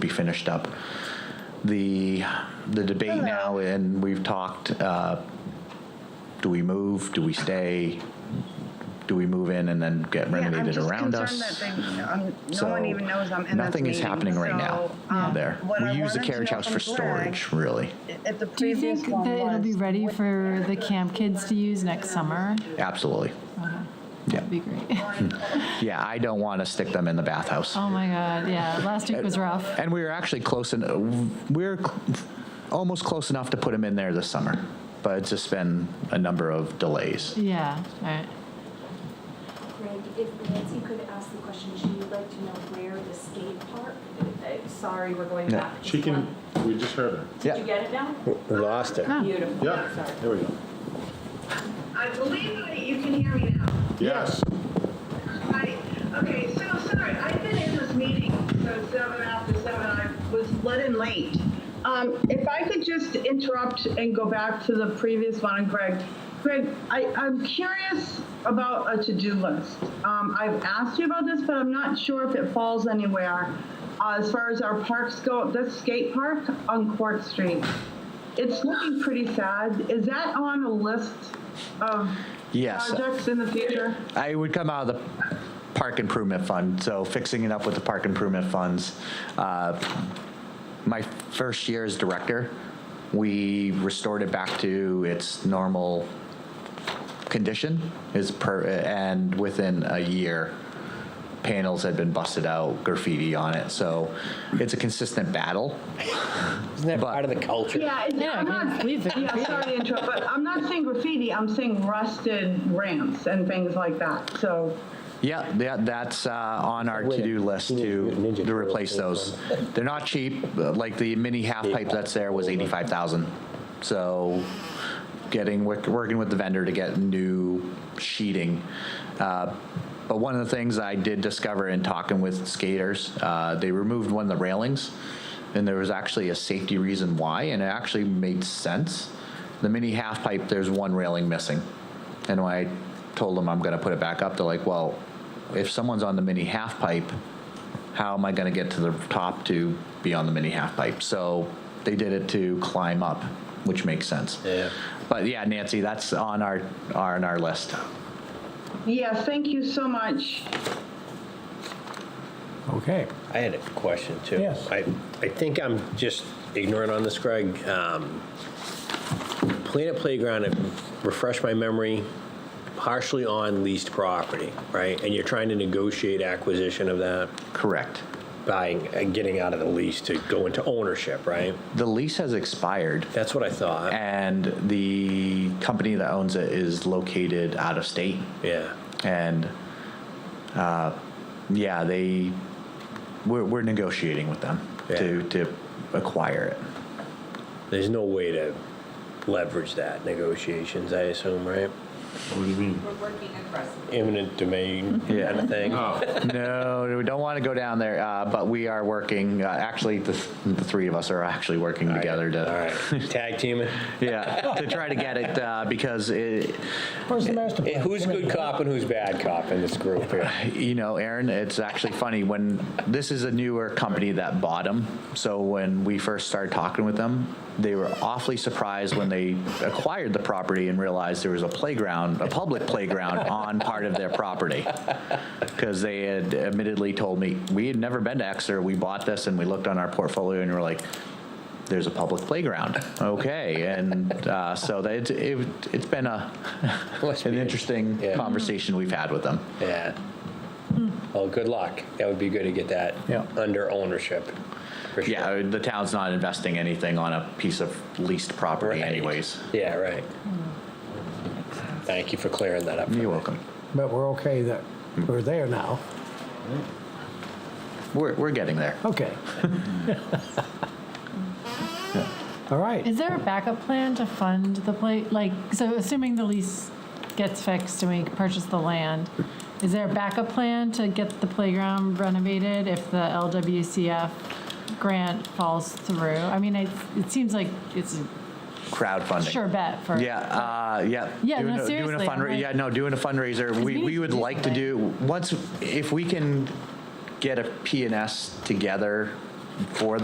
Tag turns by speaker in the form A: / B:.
A: be finished up. The, the debate now, and we've talked, uh, do we move, do we stay? Do we move in and then get
B: Yeah, I'm
A: renovated
B: just
A: around us?
B: concerned that they- um, No one
A: So,
B: even knows I'm in this meeting.
A: Nothing is happening right
B: so,
A: now
B: um,
A: there.
B: what I
A: We use the
B: wanted to
A: carriage
B: know
A: house
B: from
A: for
B: Greg
A: storage, really.
B: At the
C: Do you
B: previous
C: think
B: one
C: that it'll be
B: was,
C: ready for the camp kids to use next summer?
A: Absolutely. Yeah.
B: Uh-huh.
C: That'd be great.
A: Yeah, I don't want to stick them in the bathhouse.
C: Oh my God, yeah, last week was rough.
A: And we were actually close, and we're cl- almost close enough to put them in there this summer, but it's just been a number of delays.
C: Yeah, all right.
D: Greg, if Nancy could ask the question, she would like to know where the skate park, uh, sorry, we're going
A: Yeah.
D: back. just
E: She can,
D: one.
E: we just heard her.
D: Did you get it now?
F: We lost her.
D: Beautiful,
E: Yeah,
D: sorry.
E: there we go.
G: I believe that you can hear me now.
E: Yes,
G: Hi. Okay, so sorry, I've been in this meeting, so seven after seven, I was let in late. Um, if I could just interrupt and go back to the previous one, Greg. Greg, I, I'm curious about a to-do list. Um, I've asked you about this, but I'm not sure if it falls anywhere. Uh, as far as our parks go, this skate park on Court Street, it's looking pretty sad. Is that on a list of
A: Yes.
G: projects in the future?
A: I would come out of the park improvement fund, so fixing it up with the park improvement funds. Uh, My first year as director, we restored it back to its normal condition is per, and within a year, panels had been busted out, graffiti on it, so it's a consistent battle.
F: Isn't that
A: But-
F: part of the culture?
G: Yeah, it's,
C: Yeah,
G: I'm not,
C: leave the
G: yeah, sorry to interrupt, but I'm not saying graffiti, I'm saying rusted ramps and things like that, so.
A: Yeah, that, that's uh, on our
F: Wait,
A: to-do list
F: Teenage
A: to,
F: Mutant Ninja
A: to replace
F: Turtles.
A: those. They're not cheap, uh, like the mini half pipe that's there was eighty-five thousand. So getting, work- working with the vendor to get new sheeting. Uh, But one of the things I did discover in talking with skaters, uh, they removed one of the railings, and there was actually a safety reason why, and it actually made sense. The mini half pipe, there's one railing missing. And when I told them I'm going to put it back up, they're like, well, if someone's on the mini half pipe, how am I going to get to the top to be on the mini half pipe? So they did it to climb up, which makes sense.
F: Yeah.
A: But yeah, Nancy, that's on our on our list.
G: Yeah, thank you so much.
H: Okay.
F: I had a question too.
H: Yes.
F: I, I think I'm just ignorant on this, Greg. Um, Planet Playground, if- refresh my memory, partially on leased property, right? And you're trying to negotiate acquisition of that
A: Correct.
F: by uh, getting out of the lease to go into ownership, right?
A: The lease has expired,
F: That's what I
A: Uh,
F: thought.
A: and the company that owns it is located out of state,
F: Yeah.
A: and uh, yeah, they we're, we're negotiating with them to to acquire it.
F: There's no way to leverage that negotiations, I assume, right?
E: what do you mean?
I: We're working aggressively.
F: Imminent domain
A: Yeah.
F: kind of thing.
E: Oh,
A: No, we don't want to go down there, uh, but we are working. Uh, actually, the, th- the three of us are actually working together to,
F: All right. Tag teaming.
A: yeah, to try to get it uh, because it,
H: Where's the master plan?
F: Who's good cop and who's bad cop in this group here?
A: you know, Aaron, it's actually funny when this is a newer company that bought them. So when we first started talking with them, they were awfully surprised when they acquired the property and realized there was a playground, a public playground on part of their property. Because they had admittedly told me, we had never been to Exeter. We bought this and we looked on our portfolio and we were like, there's a public playground. Okay. And uh, so that, it, it, it's been a,
F: Must
A: an
F: be.
A: interesting
F: Yeah.
A: conversation we've had with them.
F: Yeah. Well, good luck. That would be good to get that
H: Yeah.
F: under ownership. For sure.
A: Yeah, the town's not investing anything on a piece of leased property
F: Right.
A: anyways.
F: Yeah, right. Thank you for clearing that up.
A: You're welcome.
H: But we're okay that we're there now.
A: We're, we're getting there.
C: Oh,
H: Okay. All right.
C: Is there a backup plan to fund the play, like, so assuming the lease gets fixed and we purchase the land, is there a backup plan to get the playground renovated if the LWCF grant falls through? I mean, it, it seems like it's a
A: Crowdfunding.
C: sure bet for.
A: Yeah, uh, yeah.
C: Yeah,
A: Doing
C: no,
A: a- doing a
C: seriously, I'm
A: fundra-
C: like-
A: Yeah, no, doing a fundraiser.
C: we
A: We,
C: need
A: we
C: to
A: would
C: do
A: like to
C: something.
A: do, once, if we can get a P and S together for